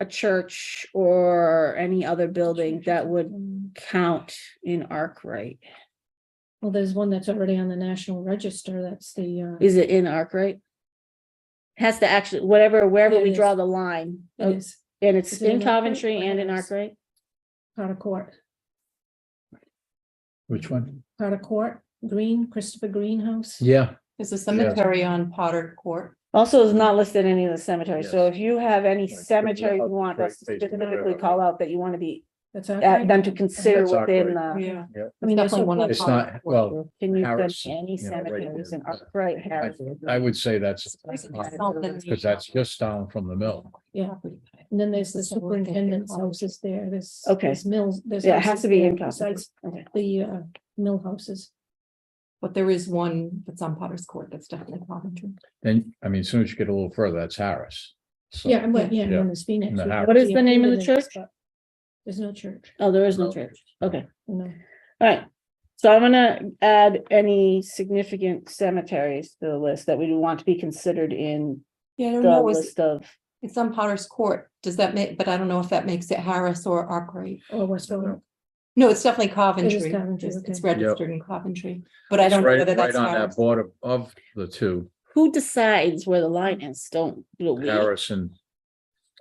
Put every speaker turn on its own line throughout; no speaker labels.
a church or any other building that would
Mm.
count in Arkwright.
Well, there's one that's already on the National Register. That's the, uh,
Is it in Arkwright? Has to actually, whatever, wherever
It
we
is.
draw the line,
it
oh,
is
and it's
Is it in
in
Arkwright
Coventry
or
and in
Hanover's?
Arkwright.
Potter Court,
Which one?
Potter Court, Green, Christopher Greenhouse.
Yeah,
There's a cemetery on Potter Court.
Also is not listed in any of the cemeteries, so
Yes.
if you have any
so
cemetery you
that's
want
right,
us to
facing the
specifically
railroad.
call out that you want to be,
That's
uh,
Arkwright.
them to consider
That's awkward.
within the.
Yeah.
I mean, there's
Definitely
one,
one that's-
it's not, well,
Can you put
Harris,
any
you know, right
cemeteries
there.
in Arkwright, Harris?
I would say that's, uh, because that's just down from the mill.
yeah. And then there's the superintendent's houses there. There's.
Okay.
there's Mills, there's.
Yeah, it has
houses
to be
there
in Coventry.
Besides
Okay.
the, uh, mill houses.
But there is one that's on Potter's Court that's definitely Coventry.
Then, I mean, as soon as you get a little further, that's Harris. So-
Yeah, and what, yeah,
Yeah.
and then there's Phoenix.
And the
which
house.
What is the
actually
name of the
included in this,
church?
but There's no church,
Oh, there is no
No.
church. Okay,
no.
all right. So I'm gonna add any significant cemeteries to the list that we want to be considered in
Yeah, I don't
the
know, it's,
list of.
it's on Potter's Court, does that make, but I don't know if that makes it Harris or Arkwright.
Or West Warwick.
No, it's definitely Coventry,
Coventry,
it's it's
okay.
Yep.
registered in Coventry, but I
It's
don't know
Right,
whether
right
that's
on that
Harris.
border of the two,
Who decides where the line is? Don't. do it we.
Harris and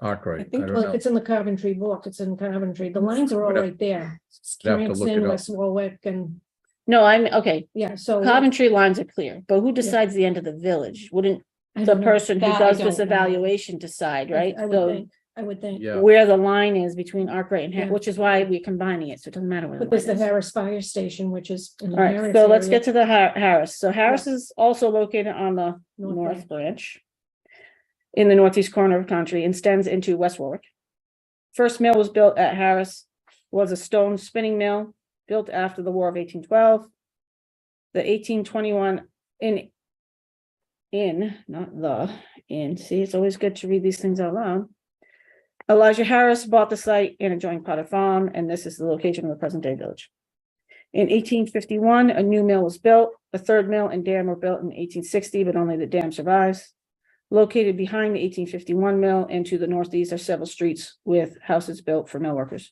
I
Arkwright, I
think-
don't
Well,
know.
it's in the Coventry book, it's in Coventry, the lines are all
We'd have-
right there.
we'd have to look it
Cranston,
up.
West Warwick, and,
No, I'm, okay,
Oh, yeah, so.
Coventry lines are clear, but who decides the end of the village? Wouldn't
I
the
don't know.
person who
That I
does this
don't know.
evaluation decide,
I-
right?
I would
So
think- I would think,
Yeah,
where the line is between Arkwright and, Har-
Yeah.
which is why we're combining it, so it doesn't matter where. the
but there's the
line is.
Harris Fire Station, which is. in the
All right,
Harris
so let's
area,
get to the Har- Harris. So Harris is also located on the
North
north
Bank.
branch in the northeast corner of the country and extends into West Warwick. First mill was built at Harris, was a stone spinning mill built after the War of eighteen twelve. The eighteen twenty-one in in, not the, in, see, it's always good to read these things out loud. Elijah Harris bought the site and adjoined Potter Farm, and this is the location of the present-day village. In eighteen fifty-one, a new mill was built. The third mill and dam were built in eighteen sixty, but only the dam survives. Located behind the eighteen fifty-one mill and to the northeast are several streets with houses built for mill workers.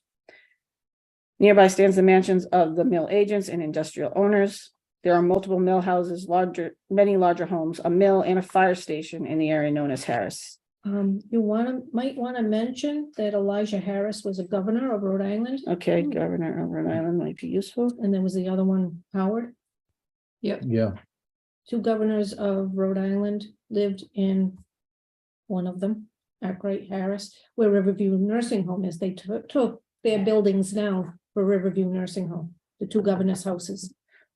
Nearby stands the mansions of the mill agents and industrial owners. There are multiple mill houses, larger, many larger homes, a mill and a fire station in the area known as Harris.
Um, you wanna, might wanna mention that Elijah Harris was a governor of Rhode Island,
Okay, Governor of Rhode Island might be useful.
and there was the other one, Howard.
yeah,
Two governors of Rhode Island lived in one of them, Arkwright Harris, where Riverview Nursing Home is. They took, took their buildings now for Riverview Nursing Home, the two governors' houses.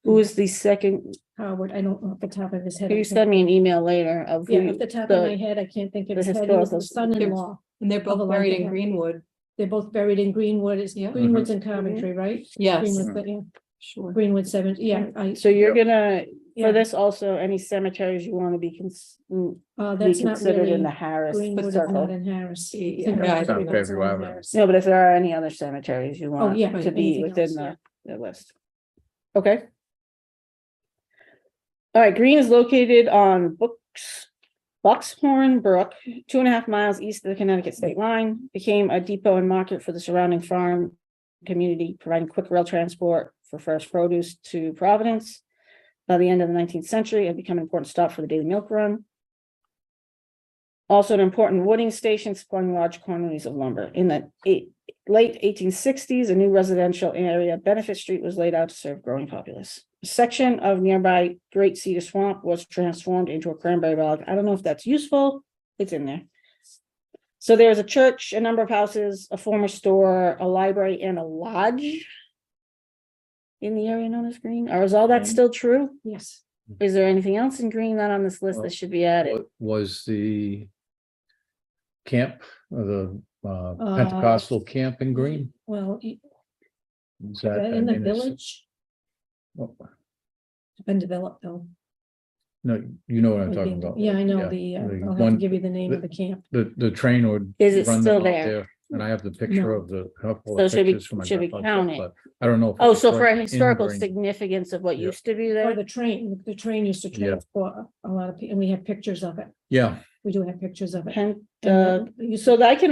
Who is the second?
Howard, I don't know off the top of his head. I
You
can't-
send me an email later of who
Yeah,
you-
off the top of
the-
my head, I can't think
the
of his head. He was
historical-
the son-in-law.
And they're both
Although I
buried
think
in
I-
Greenwood,
They're both buried in Greenwood. It's
Yeah.
Greenwood's
Mm-hmm.
in Coventry, right?
yes,
Greenwood's the- yeah,
sure.
Greenwood seven, yeah, I,
So you're gonna, for
Yeah.
this also, any cemeteries you wanna be cons- mm,
uh,
be
that's not
considered
really.
in the Harris
Greenwood is not
circle?
in Harris.
Yeah,
It's in
yeah, I
Greenwood,
don't
it's
think we
not in
have it.
Harris.
No, but if there are any other cemeteries you want
yeah,
to be
anything
within
else, yeah.
the, the list. Okay. All right, Green is located on Books, Buckshorn Brook, two and a half miles east of the Connecticut state line. Became a depot and market for the surrounding farm community, providing quick rail transport for fresh produce to Providence. By the end of the nineteenth century, it had become an important stop for the daily milk run. Also an important wooding station supplying large quantities of lumber. In the eight, late eighteen sixties, a new residential area, Benefit Street, was laid out to serve growing populace. A Section of nearby Great Cedar Swamp was transformed into a cranberry bog. I don't know if that's useful. It's in there. So there's a church, a number of houses, a former store, a library, and a lodge in the area known as Green. Or is all that
Mhm.
still true?
Yes,
Is there anything else in Green that on this list
Well,
that should be added?
Wa- was the camp, uh, the uh,
Uh,
Pentecostal camp in Green?
well, i-
Is
uh,
that- I
in the
mean, oh, is-
village,
well,
it's been developed though.
No, you know what I'm
Would
talking
be-
about.
Yeah, I know the, uh,
the
I'll have to
one-
give you the name of
the-
the camp.
The, the train would.
Is it
run
still
out
there?
And I have the picture
No.
of the. a
So
couple of
it should be-
pictures from my
should be
grandfather's,
counted.
but I don't know. if it
Oh,
was
so for
right
a
in
historical
Green.
significance of what
Yeah.
used to be
Or
there?
the train, the train used to
Yeah.
transport a lot of, pe- and we have pictures of it.
Yeah.
We do have pictures of it.
Pent-
And
uh,
then you
so that I can